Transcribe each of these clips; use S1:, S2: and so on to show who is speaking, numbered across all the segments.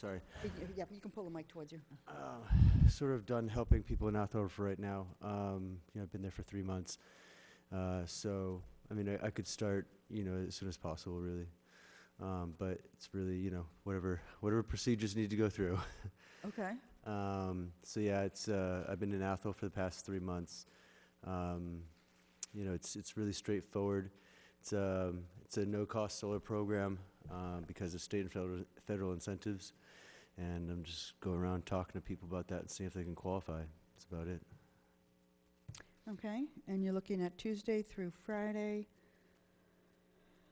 S1: Sorry.
S2: Yeah, you can pull the mic towards you.
S1: Uh, Sort of done helping people in Athol for right now. Um, You know, I've been there for three months. Uh, So, I mean, I I could start, you know, as soon as possible, really. Um, But it's really, you know, whatever, whatever procedures need to go through.
S2: Okay.
S1: Um, So, yeah, it's, uh, I've been in Athol for the past three months. Um, You know, it's, it's really straightforward. It's, um, it's a no-cost solar program um, because of state and federal federal incentives. And I'm just go around talking to people about that and see if they can qualify. That's about it.
S2: Okay, and you're looking at Tuesday through Friday?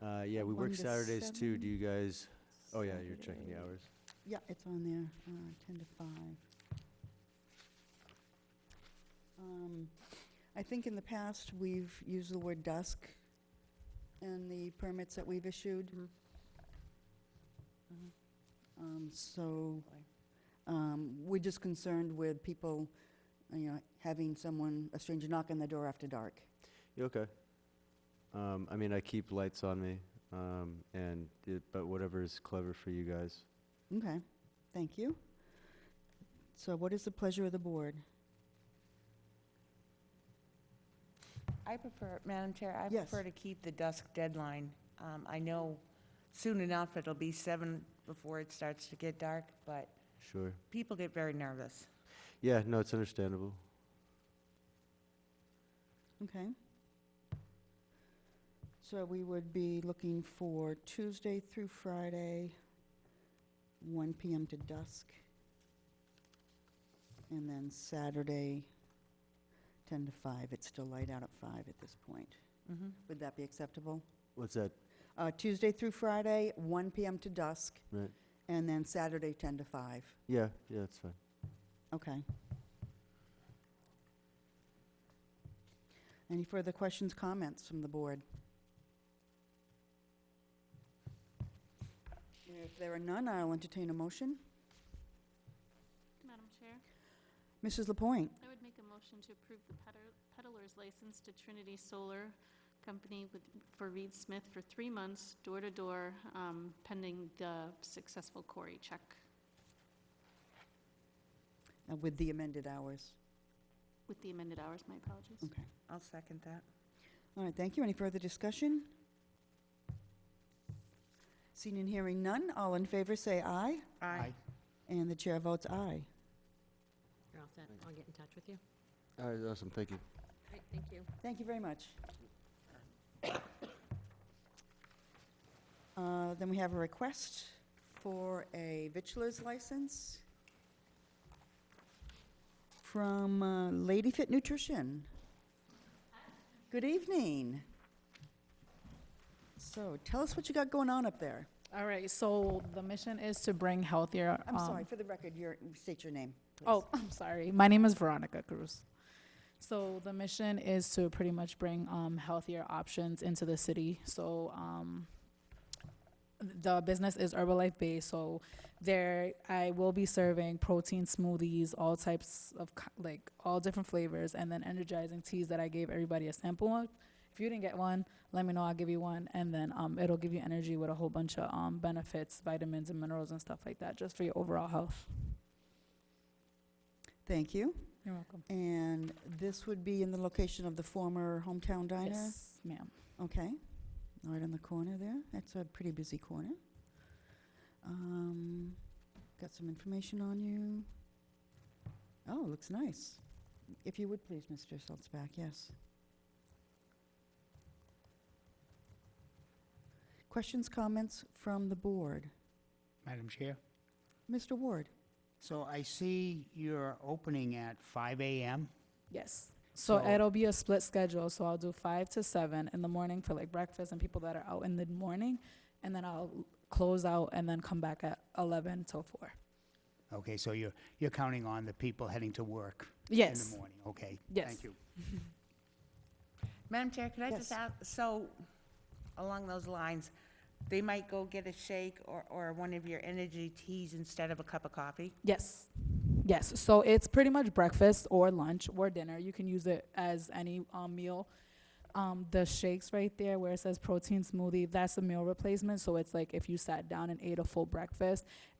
S1: Uh, Yeah, we
S2: One
S1: work
S2: to
S1: Saturdays too.
S2: seven.
S1: Do you guys, oh yeah, you're checking the hours.
S2: Yeah, it's on there, uh, 10 to 5. Um, I think in the past, we've used the word dusk in the permits that we've issued.
S3: Mhm.
S2: Uh-huh. Um, So um, we're just concerned with people, you know, having someone, a stranger knock on the door after dark.
S1: You okay? Um, I mean, I keep lights on me, um, and, it- but whatever is clever for you guys.
S2: Okay, thank you. So what is the pleasure of the board?
S3: I prefer, Madam Chair, I
S2: Yes.
S3: prefer to keep the dusk deadline. Um, I know soon enough it'll be seven before it starts to get dark, but
S1: Sure.
S3: people get very nervous.
S1: Yeah, no, it's understandable.
S2: Okay. So we would be looking for Tuesday through Friday, 1 PM to dusk. And then Saturday, 10 to 5. It's still light out at 5 at this point.
S3: Mhm.
S2: Would that be acceptable?
S1: What's that?
S2: Uh, Tuesday through Friday, 1 PM to dusk.
S1: Right.
S2: And then Saturday, 10 to 5.
S1: Yeah, yeah, that's fine.
S2: Okay. Any further questions, comments from the board? If there are none, I'll entertain a motion.
S4: Madam Chair,
S2: Mrs. Lapointe,
S4: I would make a motion to approve the peddler- peddler's license to Trinity Solar Company with, for Reed Smith for three months, door-to-door, um, pending the successful Cory check.
S2: uh, with the amended hours.
S4: With the amended hours, my apologies.
S2: Okay.
S3: I'll second that.
S2: All right, thank you. Any further discussion? Seeing and hearing none, all in favor say aye,
S3: Aye.
S2: and the chair votes aye.
S5: You're all set.
S1: Thanks.
S5: I'll get in touch with you.
S1: All right, awesome, thank you.
S5: Great, thank you.
S2: Thank you very much. Uh, Then we have a request for a vitulers license from uh, Lady Fit Nutrition. Good evening. So tell us what you got going on up there.
S6: All right, so the mission is to bring healthier.
S2: I'm
S6: um,
S2: sorry, for the record, your, state your name. please.
S6: Oh, I'm sorry. My name is Veronica Cruz. So the mission is to pretty much bring um, healthier options into the city. So um, the business is Herbalife based. So there, I will be serving protein smoothies, all types of co- like all different flavors, and then energizing teas that I gave everybody a sample of. If you didn't get one, let me know. I'll give you one, and then um, it'll give you energy with a whole bunch of um, benefits, vitamins and minerals and stuff like that, just for your overall health.
S2: Thank you.
S6: You're welcome.
S2: And this would be in the location of the former Hometown Diner?
S6: Yes, ma'am.
S2: Okay, right on the corner there. That's a pretty busy corner. Um, Got some information on you. Oh, looks nice. If you would please, Mr. Salzback, yes. Questions, comments from the board?
S7: Madam Chair,
S2: Mr. Ward?
S7: so I see you're opening at 5 AM.
S6: Yes. So
S7: So-
S6: it'll be a split schedule, so I'll do five to seven in the morning for like breakfast and people that are out in the morning, and then I'll close out and then come back at eleven till four.
S7: Okay, so you're, you're counting on the people heading to work in
S6: Yes.
S7: the morning? Okay,
S6: Yes.
S7: thank you.
S3: Madam Chair, could I just
S2: Yes.
S3: ask, so along those lines, they might go get a shake or, or one of your energy teas instead of a cup of coffee?
S6: Yes. Yes. So it's pretty much breakfast or lunch or dinner. You can use it as any um, meal. Um, the shakes right there where it says protein smoothie, that's a meal replacement. So it's like if you sat down and ate a full breakfast